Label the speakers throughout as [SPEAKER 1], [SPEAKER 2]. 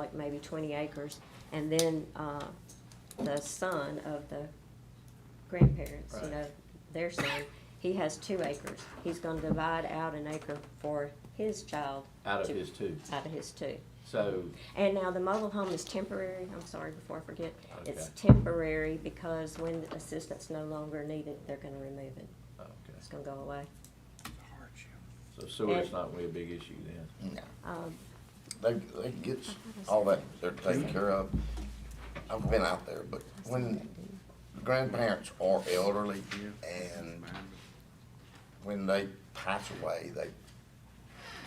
[SPEAKER 1] like maybe twenty acres, and then, uh, the son of the grandparents, you
[SPEAKER 2] Right.
[SPEAKER 1] know, their son, he has two acres. He's gonna divide out an acre for his child
[SPEAKER 2] out
[SPEAKER 1] to-
[SPEAKER 2] of his two.
[SPEAKER 1] out of his two.
[SPEAKER 2] So,
[SPEAKER 1] And now the mobile home is temporary, I'm sorry, before I forget, it's
[SPEAKER 2] Okay.
[SPEAKER 1] temporary because when assistance no longer needed, they're gonna remove it,
[SPEAKER 2] okay,
[SPEAKER 1] it's gonna go away.
[SPEAKER 2] so sewer's not really a big issue then.
[SPEAKER 3] No,
[SPEAKER 1] Um,
[SPEAKER 3] they, they gets all that, they're taken care of. I've been out there, but when grandparents are elderly and when they pass away, they,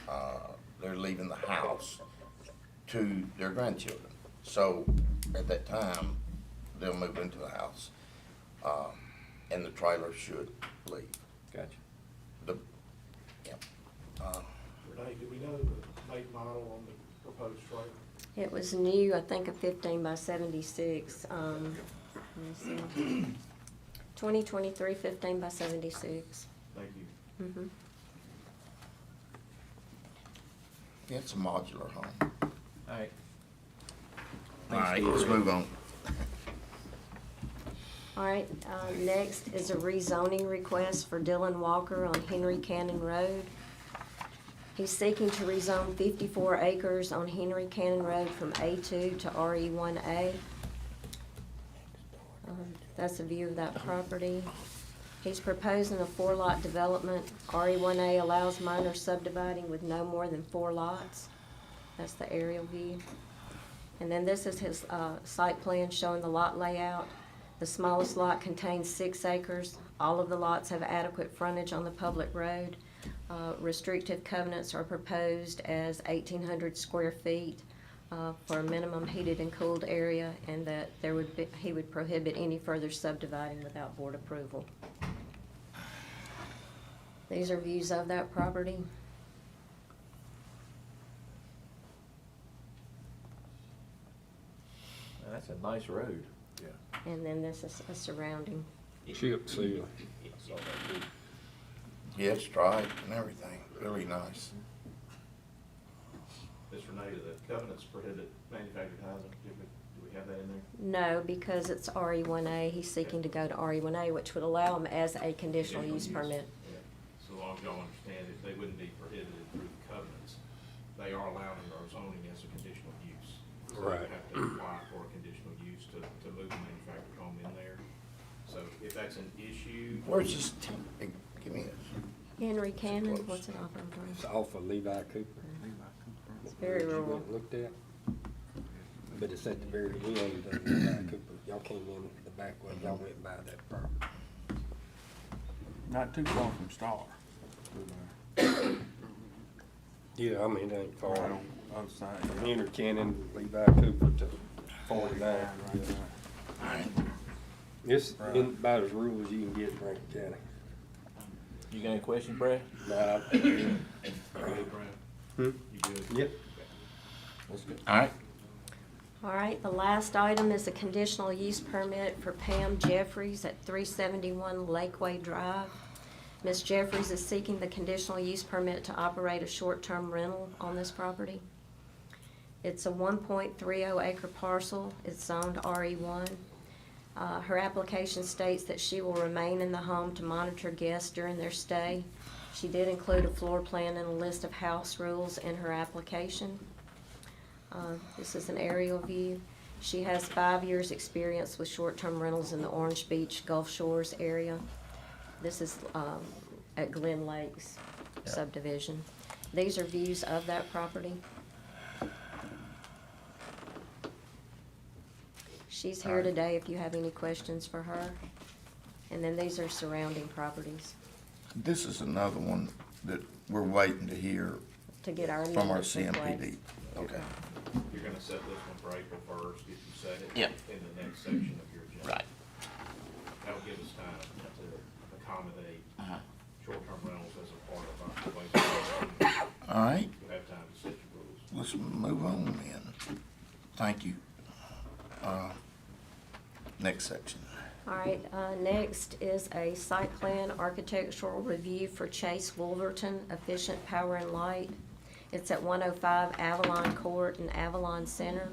[SPEAKER 3] uh, they're leaving the house to their grandchildren. So at that time, they'll move into the house, uh, and the trailer should leave.
[SPEAKER 2] Gotcha.
[SPEAKER 3] The, yep. Uh,
[SPEAKER 4] Renee, do we know the make model on the proposed trailer?
[SPEAKER 1] It was new, I think, a fifteen by seventy-six, um, let me see. 2023 15 by seventy-six.
[SPEAKER 4] Thank you.
[SPEAKER 1] Mhm.
[SPEAKER 3] It's a modular home.
[SPEAKER 2] All right.
[SPEAKER 3] All right, let's move on.
[SPEAKER 1] All right, uh, next is a rezoning request for Dylan Walker on Henry Cannon Road. He's seeking to rezone fifty-four acres on Henry Cannon Road from A two to RE one A. Um, That's a view of that property. He's proposing a four-lot development. RE one A allows minor subdividing with no more than four lots. That's the aerial view. And then this is his, uh, site plan showing the lot layout. The smallest lot contains six acres. All of the lots have adequate frontage on the public road. Uh, Restrictive covenants are proposed as eighteen hundred square feet uh, for a minimum heated and cooled area, and that there would be, he would prohibit any further subdividing without board approval. These are views of that property.
[SPEAKER 2] Now, That's a nice road. Yeah.
[SPEAKER 1] And then this is a surrounding.
[SPEAKER 5] Chip seal.
[SPEAKER 3] Yeah, it's striped and everything, really nice.
[SPEAKER 4] Ms. Renee, the covenants prohibit manufactured housing, do we, do we have that in there?
[SPEAKER 1] No, because it's RE one A, he's seeking to go to RE one A, which would allow him as a conditional use permit.
[SPEAKER 4] Yeah. So long as y'all understand it, they wouldn't be prohibited through the covenants. They are allowed under our zoning as a conditional use. So they
[SPEAKER 5] Right.
[SPEAKER 4] Have to apply for a conditional use to, to move a manufactured home in there. So if that's an issue,
[SPEAKER 3] Where's this, t- hey, give me this.
[SPEAKER 1] Henry Cannon,
[SPEAKER 3] close.
[SPEAKER 1] what's it off of?
[SPEAKER 5] It's off of Levi Cooper.
[SPEAKER 1] It's very
[SPEAKER 5] You went
[SPEAKER 1] rural.
[SPEAKER 5] and Looked at. But it's at the very end of Levi Cooper. Y'all came in the back way, y'all went by that property.
[SPEAKER 6] Not too far from Star.
[SPEAKER 5] Yeah, I mean, it ain't far.
[SPEAKER 6] Right on the other side.
[SPEAKER 5] From Henry Cannon, Levi Cooper to forty-nine.
[SPEAKER 6] Right there.
[SPEAKER 5] It's in about as rural as you can get in Rankin County.
[SPEAKER 2] You got any questions, Brad?
[SPEAKER 5] Now,
[SPEAKER 4] you good, Brad?
[SPEAKER 5] Hmm.
[SPEAKER 4] You good?
[SPEAKER 5] yep,
[SPEAKER 2] Let's go.
[SPEAKER 3] All right.
[SPEAKER 1] All right, the last item is a conditional use permit for Pam Jeffries at three seventy-one Lakeway Drive. Ms. Jeffries is seeking the conditional use permit to operate a short-term rental on this property. It's a one point three oh acre parcel, it's zoned RE one. Uh, her application states that she will remain in the home to monitor guests during their stay. She did include a floor plan and a list of house rules in her application. Uh, This is an aerial view. She has five years' experience with short-term rentals in the Orange Beach Gulf Shores area. This is um, at Glen Lakes subdivision. These are views of that property. She's here today if you have any questions for her. And then these are surrounding properties
[SPEAKER 3] This is another one that we're waiting to hear
[SPEAKER 1] to get our
[SPEAKER 3] from our
[SPEAKER 1] amendments in place.
[SPEAKER 3] CMPD. Okay.
[SPEAKER 4] You're gonna set this one for April first, if you set it.
[SPEAKER 3] Yeah.
[SPEAKER 4] In the next section of your agenda. That'll give us time to accommodate short-term rentals as a part of our relationship.
[SPEAKER 3] All right,
[SPEAKER 4] You'll have time to set your rules.
[SPEAKER 3] let's move on then. Thank you. Uh, Next section.
[SPEAKER 1] All right, uh, next is a site plan architectural review for Chase Wolverton Efficient Power and Light. It's at one oh five Avalon Court in Avalon Center.